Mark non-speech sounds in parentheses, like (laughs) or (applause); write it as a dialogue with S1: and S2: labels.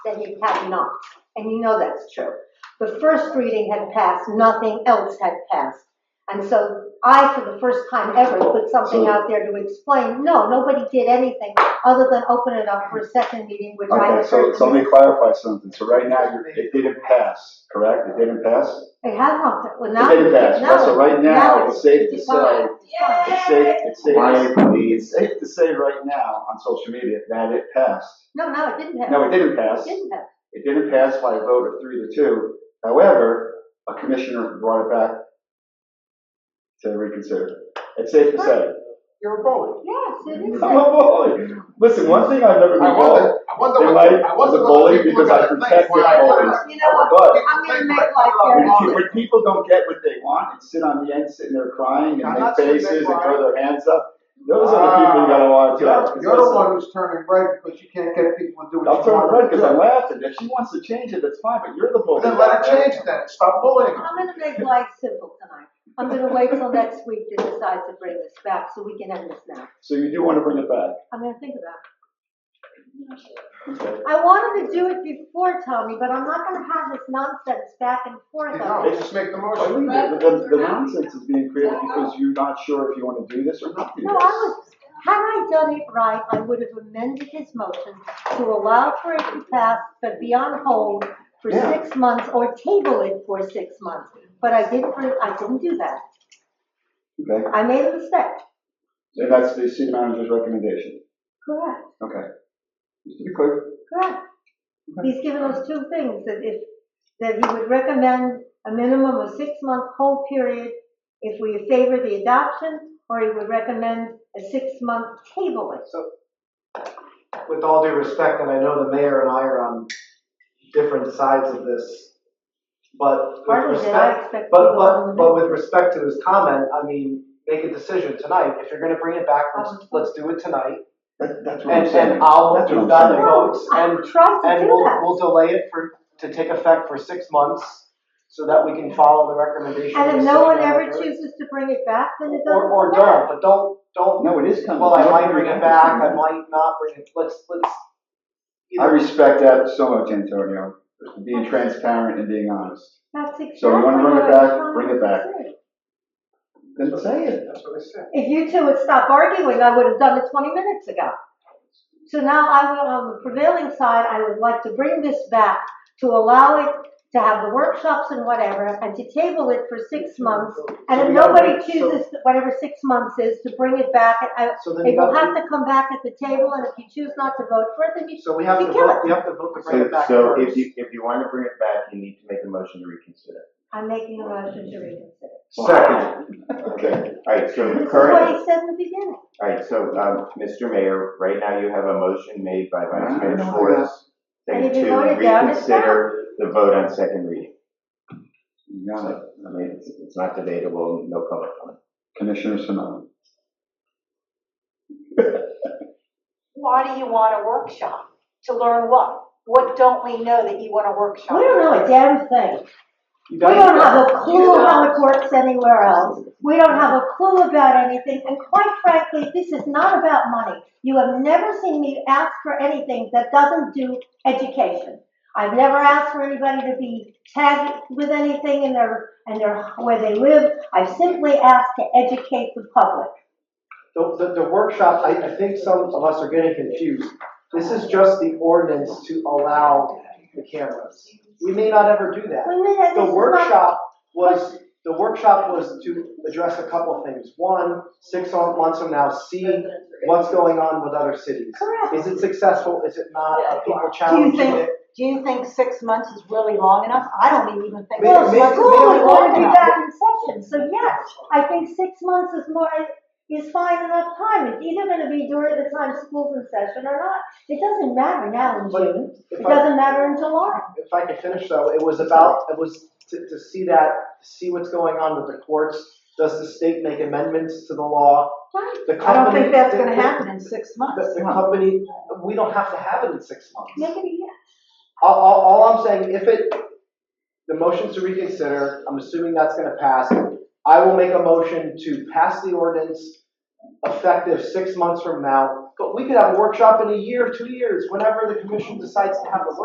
S1: that he had not, and you know that's true. The first reading had passed, nothing else had passed. And so I, for the first time ever, put something out there to explain, no, nobody did anything other than open it up for a second meeting, which I
S2: Okay,
S1: had
S2: so,
S1: heard.
S2: so let me clarify something. So right now, you're- it didn't pass, correct? It didn't pass?
S1: It had not, well,
S2: It
S1: now.
S2: didn't pass.
S1: no,
S2: So right now, it's safe to say, it's safe, it's safe,
S3: Why,
S2: it's
S3: please?
S2: safe to say right now on social media that it passed.
S1: No, no, it didn't have.
S2: No, it didn't pass.
S1: It didn't have.
S2: It didn't pass by a vote of three to two. However, a commissioner brought it back to reconsider. It's safe to say.
S3: You're a bully.
S1: Yes, it is.
S2: I'm a bully. (laughs) Listen, one thing I've never
S3: I
S2: been bullied,
S3: wasn't, I wasn't,
S2: In
S3: with-
S2: life,
S3: I wasn't.
S2: as a
S3: with
S2: bully,
S3: people
S2: because
S3: that
S2: I protected
S3: when I
S2: bullies.
S3: first-
S1: You know what?
S2: but
S1: I'm gonna make
S3: Like,
S1: life
S3: I'm
S1: very
S2: When,
S3: not
S2: pe-
S3: bullied.
S2: when people don't get what they want and sit on the end, sitting there crying and
S3: I'm
S2: make
S3: not sitting there
S2: faces and throw their hands up, those are the
S3: Ah.
S2: people you gotta watch out. 'cause
S3: You're the
S2: listen,
S3: one who's turning red because you can't get people to do
S2: I'll
S3: what you
S2: turn red
S3: want them
S2: because I'm
S3: to do.
S2: laughing. If she wants to change it, that's fine, but you're the bully.
S3: Then let her change that, stop bullying her.
S1: I'm gonna make life simple tonight. I'm gonna wait till next week to decide to bring this back, so we can end this now.
S2: So you do wanna bring it back.
S1: I'm gonna think about it. I wanted to do it before, Tommy, but I'm not gonna have this nonsense back and
S3: You
S1: forth.
S3: know, just make the
S2: But
S3: motion.
S2: The, the- the nonsense is being created because you're not sure if you wanna do this or not do
S1: No, I
S2: this.
S1: was, had I done it right, I would have amended his motion to allow for it to pass, but be on hold for
S2: Yeah.
S1: six months or table it for six months. But I didn't, I didn't do that.
S2: Okay,
S1: I made a mistake.
S2: so that's the city manager's recommendation.
S1: Correct.
S2: Okay. Just to be clear.
S1: Correct. He's given us two things, that if, that he would recommend a minimum of six-month hold period if we favor the adoption, or he would recommend a six-month tabling.
S4: with all due respect, and I know the mayor and I are on different sides of this, but with
S1: Hardly did I
S4: respect,
S1: expect.
S4: but,
S1: people on the
S4: but, but
S1: minute.
S4: with respect to his comment, I mean, make a decision tonight. If you're gonna bring it back,
S1: Um,
S4: let's, let's do it tonight.
S2: That, that's what I'm
S4: And,
S2: saying.
S4: and I'll,
S2: That's what I'm
S4: we've got the
S2: saying.
S4: votes, and,
S1: I tried to
S4: and
S1: do
S4: we'll,
S1: that.
S4: we'll delay it for, to take effect for six months so that we can follow the recommendation. of
S1: And if
S4: the
S1: no
S4: city
S1: one ever
S4: manager.
S1: chooses to bring it back, then it doesn't.
S4: Or, or
S1: matter.
S4: don't, but don't, don't,
S2: No, it is coming.
S4: well, I might bring it back, I might not bring it, let's, let's.
S2: I respect that so much, Antonio, being transparent and being honest.
S1: That's
S2: So
S1: exactly
S2: you
S1: what
S2: wanna bring it
S1: I was
S2: back?
S1: trying
S2: Bring it
S1: to
S2: back.
S1: say.
S2: Then say it.
S3: That's what I said.
S1: If you two had stopped arguing, I would have done it twenty minutes ago. So now I will, on the prevailing side, I would like to bring this back to allow it to have the workshops and whatever, and to table it for six months. And
S4: So
S1: if
S4: we gotta
S1: nobody
S4: wait- so-
S1: chooses, whatever six months is, to bring it back, I-
S4: So then you
S1: it will
S4: got,
S1: have to come back at the table, and if you choose not to vote for it, then you
S4: so we have to
S1: You kill
S4: vote,
S1: it.
S4: we have to vote to bring
S5: So,
S4: it back
S5: so if
S4: first.
S5: you, if you want to bring it back, you need to make a motion to reconsider.
S1: I'm making a motion to reconsider.
S2: Second.
S5: Okay. All right, so
S1: This is what
S5: current,
S1: he said in the beginning.
S5: all right, so, um, Mr. Mayor, right now you have a motion made by Vice
S2: I
S5: Mayor
S2: know
S5: Schwartz
S1: And
S5: saying
S1: if you
S5: to
S1: voted down, it's down.
S5: reconsider the vote on second reading.
S2: You got it.
S5: So, I mean, it's, it's not debatable, no public comment.
S2: Commissioner Sono.
S6: Why do you want a workshop? To learn what? What don't we know that you want a workshop?
S1: We don't know a damn thing.
S4: You
S1: We don't have a
S4: You
S1: clue
S4: don't.
S1: how it works anywhere else. We don't have a clue about anything, and quite frankly, this is not about money. You have never seen me ask for anything that doesn't do education. I've never asked for anybody to be tagged with anything in their, in their, where they live. I've simply asked to educate the public.
S4: The, the, the workshop, I, I think some of us are getting confused. This is just the ordinance to allow the cameras. We may not ever do that.
S1: We may have- this
S4: The
S1: is not-
S4: workshop was, the workshop was to address a couple of things. One, six months from now, see what's going on with other cities.
S1: Correct.
S4: Is it successful, is it not, are people
S6: Uh, Do you
S4: challenging
S6: think,
S4: it?
S6: do you think six months is really long enough? I don't even think.
S4: Well,
S1: Well,
S6: six
S4: Maybe-
S6: months is
S1: school
S4: maybe
S1: would
S6: really
S1: want
S6: long
S1: to be
S6: enough.
S1: back in session, so yes, I think six months is more, is fine enough time. It's either gonna be during the time school's in session or not. It doesn't matter now in
S4: But
S1: June, it
S4: If I-
S1: doesn't matter in July.
S4: if I could finish though, it was about, it was to, to see that, see what's going on with the courts. Does the state make amendments to the law? The
S6: I don't
S4: company-
S6: think that's gonna
S4: the- the-
S6: happen in six months.
S4: The, the company, we don't have to have it in six
S1: Make
S4: months.
S1: it a year.
S4: All, all, all I'm saying, if it, the motion's to reconsider, I'm assuming that's gonna pass. I will make a motion to pass the ordinance effective six months from now. But we could have a workshop in a year, two years, whenever the commission decides to have a workshop.